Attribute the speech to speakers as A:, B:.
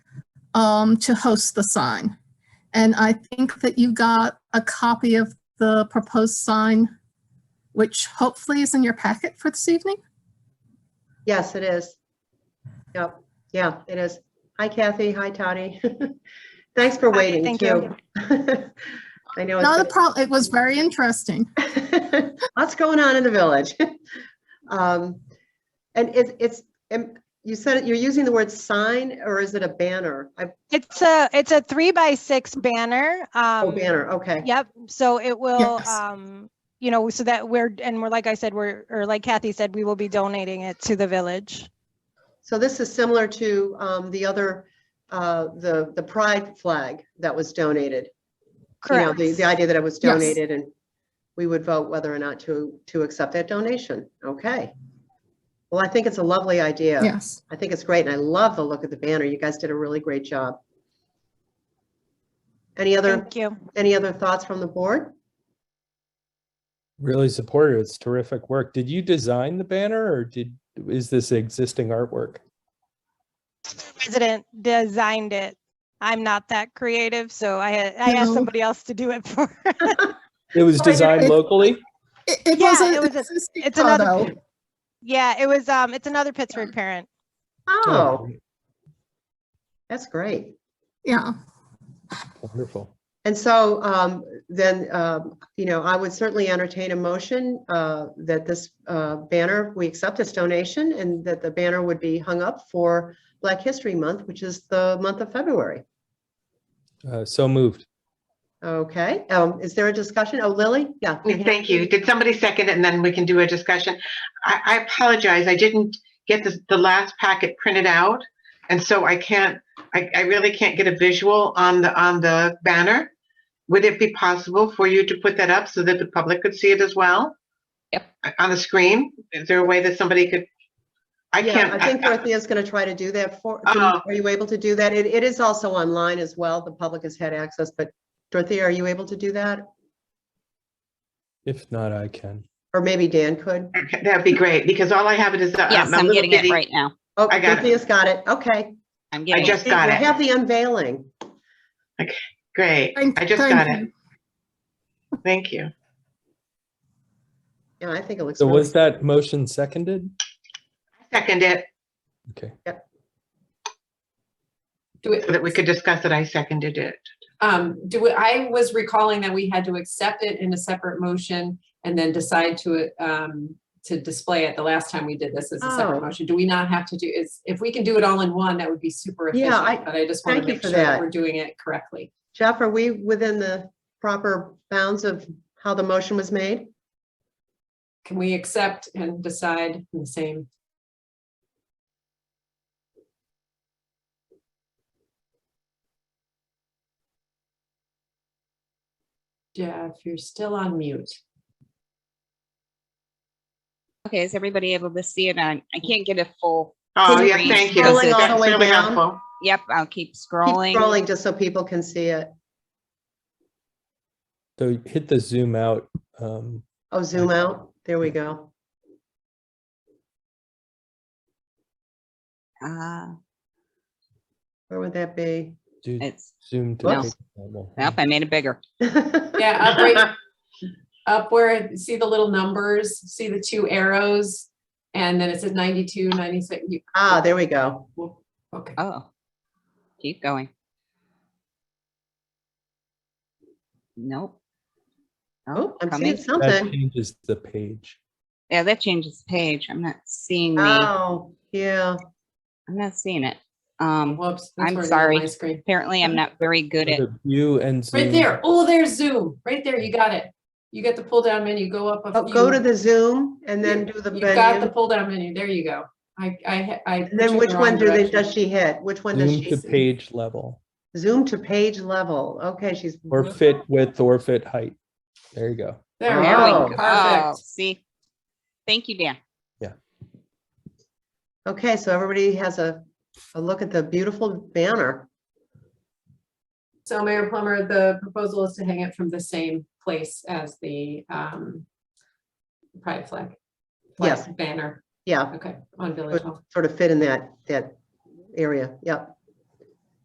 A: um, to host the sign. And I think that you got a copy of the proposed sign, which hopefully is in your packet for this evening.
B: Yes, it is. Yep, yeah, it is. Hi Kathy, hi Tony. Thanks for
C: Hi,
B: waiting
C: thank
B: too.
C: you.
B: I know.
A: Not a
B: it's
A: problem. It was very interesting.
B: been- Lots going on in the village. Um, And it's, it's, and you said, it- you're using the word sign or is it a banner? I-
C: It's a, it's a three by six banner.
B: Oh,
C: um,
B: banner, okay.
C: Yep, so it will,
A: Yes.
C: um, you know, so that we're, and we're, like I said, we're, or like Kathy said, we will be donating it to the village.
B: So this is similar to um, the other, uh, the, the pride flag that was donated. you know,
C: Correct.
B: the, the idea that it was
A: Yes.
B: donated and we would vote whether or not to, to accept that donation. Okay. Well, I think it's a lovely idea.
A: Yes.
B: I think it's great and I love the look of the banner. You guys did a really great job. Any other,
C: Thank you.
B: any other thoughts from the board?
D: Really supportive. It's terrific work. Did you design the banner or did, is this existing artwork?
C: President designed it. I'm not that creative, so I, had- I asked
A: No.
C: somebody else to do it for.
D: It was
B: Oh, I did-
D: designed
A: it-
D: locally?
A: It, it
C: Yeah,
A: was
C: it
A: a,
C: was a-
A: existing
C: it's another-
A: photo.
C: Yeah, it was, um, it's another Pittsburgh parent.
B: Oh, that's great.
A: Yeah.
D: Wonderful.
B: And so um, then, um, you know, I would certainly entertain a motion uh, that this uh, banner, we accept this donation and that the banner would be hung up for Black History Month, which is the month of February.
D: Uh, so moved.
B: Okay, um, is there a discussion? Oh, Lily? Yeah.
E: Thank you. Did somebody second it and then we can do a discussion? I, I apologize. I didn't get the, the last packet printed out. And so I can't, I, I really can't get a visual on the, on the banner. Would it be possible for you to put that up so that the public could see it as well? Yep. On the screen? Is there a way that somebody could? I
B: Yeah,
E: can't.
B: I think Dorothea's going to try to do that for, can-
E: Uh-huh.
B: are you able to do that? It, it is also online as well. The public has had access, but Dorothea, are you able to do that?
D: If not, I can.
B: Or maybe Dan could?
E: Okay, That'd be great because all I have it is. uh,
F: Yes,
E: my
F: I'm
E: little
F: getting it
E: bitty-
F: right now.
B: Oh,
E: I got it.
B: Dorothea's got it. Okay.
F: I'm
E: I
F: getting it.
E: just got
B: We
E: it.
B: Have the unveiling.
E: Great.
A: Thank-
E: I just
A: thank
E: got it.
A: you.
E: Thank you.
B: Yeah, I think it looks.
D: So
B: really-
D: was that motion seconded?
E: Second it.
D: Okay.
G: Do
E: so that we
G: it,
E: could discuss it, I seconded it.
G: um, do it, I was recalling that we had to accept it in a separate motion and then decide to, um, to display it the last time we did this as a
B: Oh.
G: separate motion. Do we not have to do, is, if we can do it all in one, that would be super
B: Yeah,
G: efficient,
B: I-
G: but I just want
B: thank
G: to
B: you
G: make
B: for
G: sure that
B: that.
G: we're doing it correctly.
B: Jeff, are we within the proper bounds of how the motion was made?
G: Can we accept and decide in the same? Jeff, you're still on mute.
F: Okay, is everybody able to see it? I, I can't get a full,
E: Oh,
F: Can
E: yeah,
F: you
E: thank you.
F: scroll it all
B: the
E: That's
B: way
E: really
B: down?
E: helpful.
F: yep, I'll keep
B: Keep
F: scrolling.
B: scrolling just so people can see it.
D: So hit the zoom out. Um,
B: Oh, zoom out. There we go.
F: Uh,
B: Where would that be?
D: do
F: it's,
D: zoom to.
F: No.
D: take normal.
F: nope, I made it bigger.
G: Yeah, up right, up where, see the little numbers, see the two arrows? And then it says 92, 96. you-
B: Ah, there we go.
G: Okay,
F: Oh. Keep going. Nope.
B: Oh, I'm
F: coming.
B: seeing
D: That
B: something.
D: changes the page.
F: Yeah, that changes page. I'm not seeing the, I'm
B: Oh, yeah.
F: not seeing it. Um,
G: whoops. that's
F: I'm
G: where it is on
F: sorry.
G: My screen.
F: apparently I'm not very good at,
D: The View and zoom.
G: Right there. Oh, there's Zoom. Right there. You got it. You got the pull down menu. Go up a
B: Oh,
G: few.
B: go to the Zoom and then do the
G: You got the
B: venue.
G: pull down menu. There you go. I, I, ha- I.
B: And then
G: put you in
B: which
G: the
B: one
G: wrong
B: do they,
G: direction.
B: does she hit? Which one does
D: Zoom
B: she?
D: to page level
B: Zoom to page level. Okay, she's.
D: or fit width or fit height. There you go.
G: There we
F: there
B: Oh,
F: we go.
G: Perfect.
F: See? Thank you, Dan.
B: Okay, so everybody has a, a look at the beautiful banner.
G: So Mayor Plummer, the proposal is to hang it from the same place as the, um, pride flag. flag
B: Yes.
G: Banner.
B: Yeah,
G: Okay, on Village
B: would
G: Hall.
B: sort of fit in that, that area. Yep.